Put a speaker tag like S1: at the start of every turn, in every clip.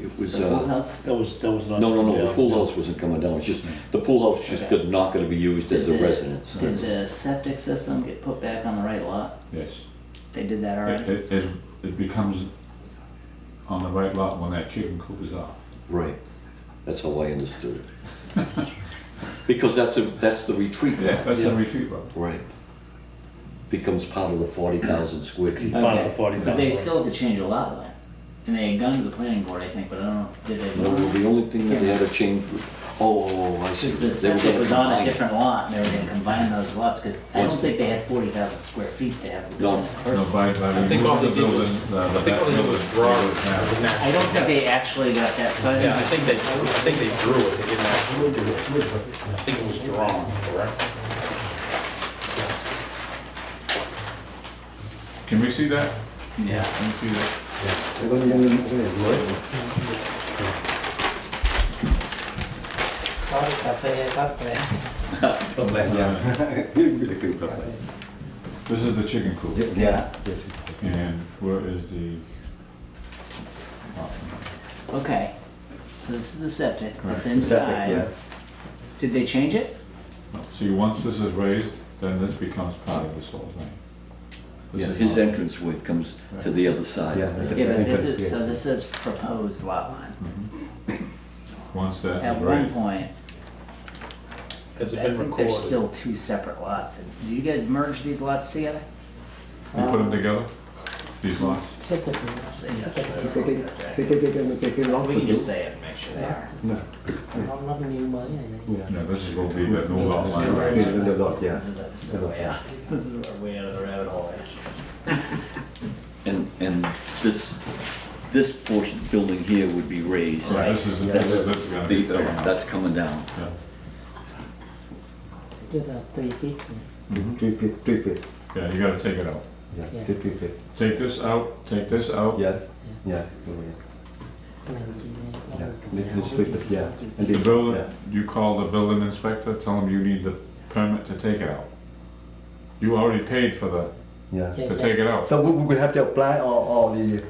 S1: It was,
S2: The pool
S1: uh,
S2: house?
S3: That was, that was not.
S1: no, no, no, the
S3: yeah,
S1: pool
S3: yeah.
S1: house wasn't coming down, it's just, the pool house just
S2: Okay.
S1: could not gonna be used as a
S2: Did the-
S1: residence.
S2: Did
S1: That's-
S2: the septic system get put back on the right lot?
S4: Yes.
S2: They did that
S4: It,
S2: already?
S4: it, it- it becomes on the right lot when that chicken coop is up.
S1: Right, that's how I understood it. Because that's, a that's the retreat
S4: Yeah,
S1: lot,
S4: that's the
S3: Yeah.
S4: retreat road.
S1: right. Becomes part of the forty thousand square feet.
S3: Part of the
S2: Okay,
S3: 40,000.
S2: But they still had to change a lot line. And they had gone to the planning board, I think, but I don't know, did they?
S1: No, the only thing that they had to change was, oh, oh, I see.
S2: Cause the
S1: They were
S2: septic
S1: gonna
S2: was on
S1: combine
S2: a
S1: it.
S2: different lot, and they were gonna combine those lots, cause I don't
S1: What's the-
S2: think they had forty thousand square feet to have.
S1: No.
S4: No, by, by
S5: I think all
S4: removing the
S5: they did was-
S4: building, the, the
S5: I think
S4: back
S5: all they did
S4: building,
S5: was
S4: they
S5: draw.
S4: would have-
S2: I don't think they actually got that, so I
S5: Yeah, I
S2: think,
S5: think they, I think they drew it, they didn't actually do it. I think it was drawn, correct?
S4: Can we see that?
S2: yeah,
S4: Can we see that? This is the chicken coop.
S6: Yeah.
S4: And where is the? oh, lot number?
S2: okay. So this is the septic,
S4: Right.
S2: it's
S4: Septic,
S2: inside. Did they change it?
S4: No. See, once this is raised, then this becomes part of this whole thing. This
S1: Yeah,
S4: is
S1: his
S4: not-
S1: entranceway comes to the other side.
S2: Yeah, but this is, so this is proposed lot line.
S4: Once that
S2: At
S4: is
S2: one
S4: raised.
S2: point,
S5: Has it
S2: I
S5: been
S2: think there's
S5: recorded?
S2: still two separate lots. Do you guys merge these lots together?
S4: You put them together, these lots?
S2: We can just say it and make sure they are.
S4: Yeah, this will be the new lot line, right?
S2: This is, this is way out, this is way out of the rabbit hole, actually.
S1: And, and this, this portion, building here would be raised.
S4: So This is, this is, this is gonna be.
S1: The, uh,
S4: taken out.
S1: that's coming down.
S4: Yeah.
S6: Mhm. Three feet, three feet,
S4: Yeah, you gotta take it out.
S6: yeah, three, three feet,
S4: Take this out, take this out.
S6: yeah, yeah, oh, yeah, yeah, This- this three feet, yeah. And
S4: The
S6: this,
S4: building,
S6: yeah.
S4: you call the building inspector, tell him you need the permit to take it out. You already paid for the,
S6: yeah.
S4: to take it out.
S6: So we, we have to apply or, or the.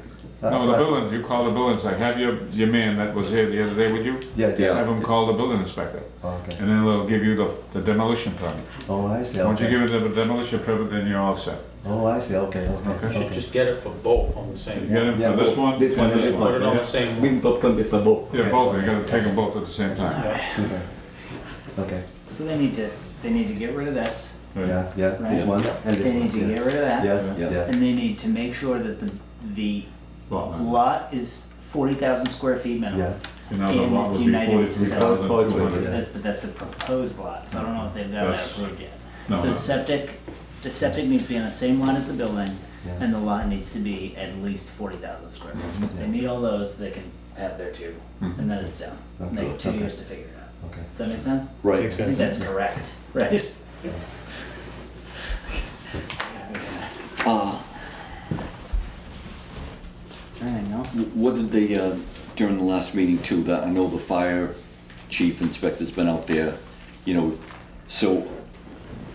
S6: uh,
S4: No, the
S6: apply-
S4: building, you call the building inspector, have your, your man that was here the other day with you,
S6: Yeah, yeah,
S4: have him call the building inspector,
S6: okay,
S4: and then they'll give you the the demolition permit.
S6: oh, I see,
S4: Once you
S6: okay,
S4: give it the demolition permit, then you're all set.
S6: oh, I see, okay, okay,
S4: Okay.
S5: You should
S6: okay.
S5: just get it for both on the
S4: You
S5: same
S4: get
S5: one.
S4: it
S6: Yeah,
S4: for this
S6: both.
S4: one and
S6: This
S4: this
S6: one and this
S5: Put
S4: one,
S5: it on
S4: yeah?
S5: the same one.
S6: We open with the both.
S4: Yeah,
S6: okay.
S4: both, you gotta take them both at the same time.
S6: Okay. Okay,
S2: So they need to, they need to get rid of this,
S4: Right.
S6: yeah, yeah,
S2: Right.
S6: this one and this
S2: they
S6: one,
S2: need to get
S6: yeah,
S2: rid of that.
S6: yes,
S1: Yeah.
S6: yes,
S2: And they need to make sure that the, the
S4: Lot line.
S2: lot is forty thousand square feet minimum.
S6: yeah,
S4: Another
S2: And
S4: lot
S2: it's
S4: would be
S2: united
S4: forty-three
S2: with
S4: thousand two
S6: seven.
S4: hundred.
S2: That's, but that's a proposed lot, so I don't know if they've got that
S4: That's-
S2: approved yet.
S4: No,
S2: So
S4: no.
S2: the septic, the septic needs to be on the same line as the building,
S6: Yeah.
S2: and the lot needs to be at least forty thousand square feet. They need all those, they can have their two,
S4: Mm-hmm.
S2: and then it's done. And they have two
S6: Oh, Okay.
S2: years to figure it out.
S6: okay.
S2: Does that make sense?
S1: Right.
S3: Makes
S2: I think
S3: sense.
S2: that's correct, right?
S1: Uh,
S2: Is there anything else?
S1: What did they, uh, during the last meeting too, that, I know the fire chief inspector's been out there, you know, so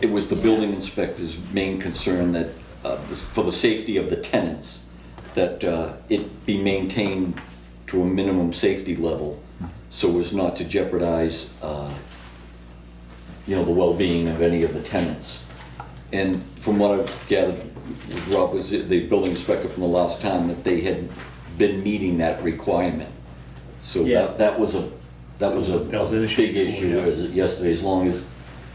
S1: it was the building inspector's main concern that, uh, for the safety of the tenants, that uh, it be maintained to a minimum safety level so as not to jeopardize, uh, you know, the well-being of any of the tenants. And from what I've gathered, Rob was the building inspector from the last time, that they had been meeting that requirement. So
S2: Yeah.
S1: that, that was a, that was a
S3: That was an
S1: a
S3: issue
S1: big
S3: before,
S1: issue
S3: yeah.
S1: as- yesterday, as long as,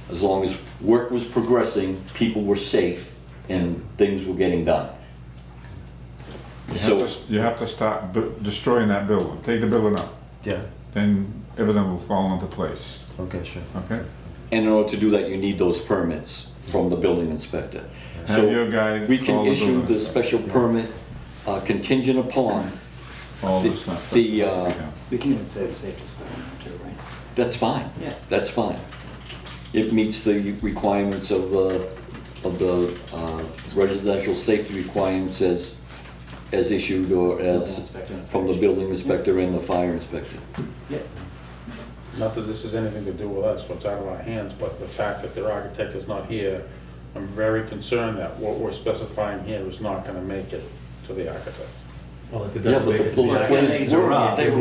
S1: as long as work was progressing, people were safe, and things were getting done.
S4: You
S1: So,
S4: have to- You have to start bu- destroying that building, take the building out,
S6: Yeah,
S4: then everything will fall into place,
S6: okay, sure.
S4: okay?
S1: and in order to do that, you need those permits from the building inspector. So
S4: Have your guy
S1: We
S4: call
S1: can
S4: the
S1: issue
S4: building
S1: the
S4: inspector.
S1: special permit uh, contingent upon
S4: All
S1: the,
S4: this stuff.
S1: the,
S4: that has to be
S1: uh,
S4: done.
S2: can say safety stuff too, right?
S1: that's fine.
S2: Yeah.
S1: That's fine. It meets the requirements of, uh, of the uh, residential safety requirements as, as issued or as, from the building inspector and the fire inspector.
S5: Not that this has anything to do with us, what's out of our hands, but the fact that their architect is not here, I'm very concerned that what we're specifying here is not gonna make it to the architect.
S3: uh,
S1: Yeah, but the plans were, they were